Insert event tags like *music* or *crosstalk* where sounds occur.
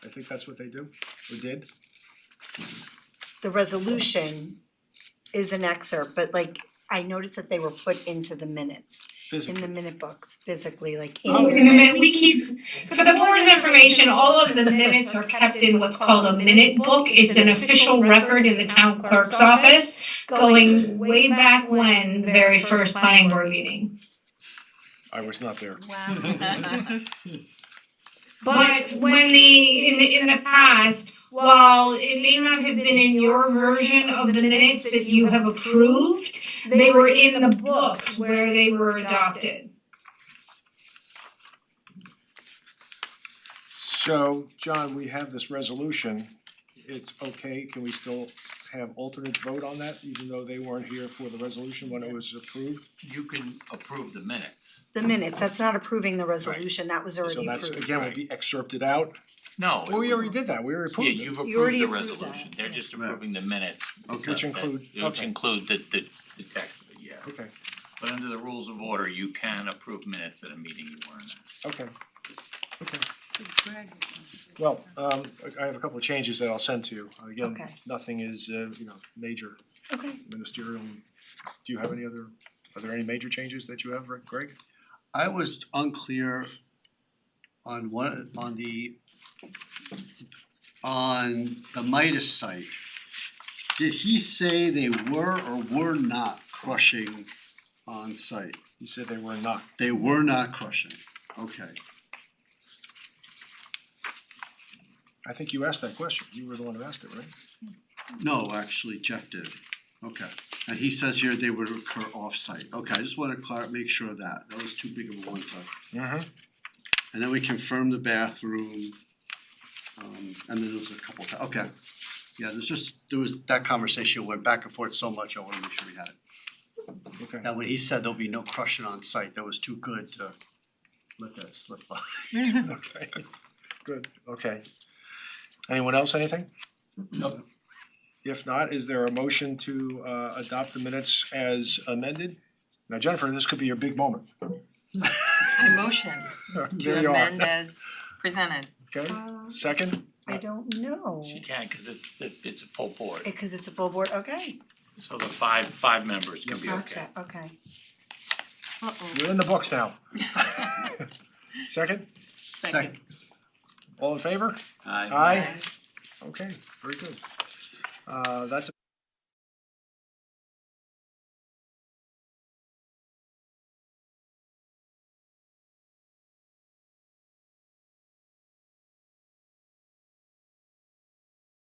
I think that's what they do, or did. the resolution is an excerpt, but like, I noticed that they were put into the minutes, in the Physically. minute books, physically, like Oh, in. In a minute, we keep, for the board's information, all of the minutes are kept in what's called a minute book. It's an official record in the town clerk's office going way back when, the very first planning board meeting. Mm-hmm. I was not there. *laughs* Wow. But when the, in the, in the past, while it may not have been in your version of the minutes that you have approved, they were in the books where they were adopted. So, John, we have this resolution. It's okay, can we still have alternate vote on that, even though they weren't here for the resolution when it was approved? You can approve the minutes. The minutes, that's not approving the resolution, that was So already that's, approved. again, would be excerpted out. No. Well, Oh, we already did that, we already Yeah, approved it. you've You already approved the approved that. resolution, they're just approving the minutes. Okay. Which that- include- that- Which okay. include the the the text, but yeah. Okay, But under the rules of order, you can approve minutes at a meeting you weren't at. okay, okay. Well, um, I I have a couple of changes that I'll send to you. Again, Okay. nothing is, uh, you know, major Okay, ministerial. Do you have any other, are there any major changes that you have, Rick- Greg? I was unclear on one, on the, on the Midas site. Did he say they were or were not crushing on site? You said they were not. They were not crushing, okay. I think you asked that question. You were the one who asked it, right? No, actually Jeff did, okay. And he says here they would occur off-site, okay, I just wanna clar- make sure of that, that was too big of a one time. Mm-hmm. And then we confirmed the bathroom. Um, and then there was a couple, ti- okay, yeah, there's just, there was, that conversation went back and forth so much, I wanna make sure we had it. Okay. Mm-hmm. Now, when he said there'll be no crushing on site, that was too good to let that slip by. Okay. *laughs* Good, okay. Anyone else, anything? Nope. If not, is there a motion to uh adopt the minutes as amended? Now Jennifer, this could be your big *laughs* moment. I *laughs* motion There to you are. amend as presented. Okay, uh, second, I don't know, She can, cause it's the it's a full board, because it's a full board, okay, so the five five members can be okay. gotcha, okay. Uh-oh. you're in the books *laughs* now. Second, Second, all in favor? Aye. Aye. Okay, very good. Uh that's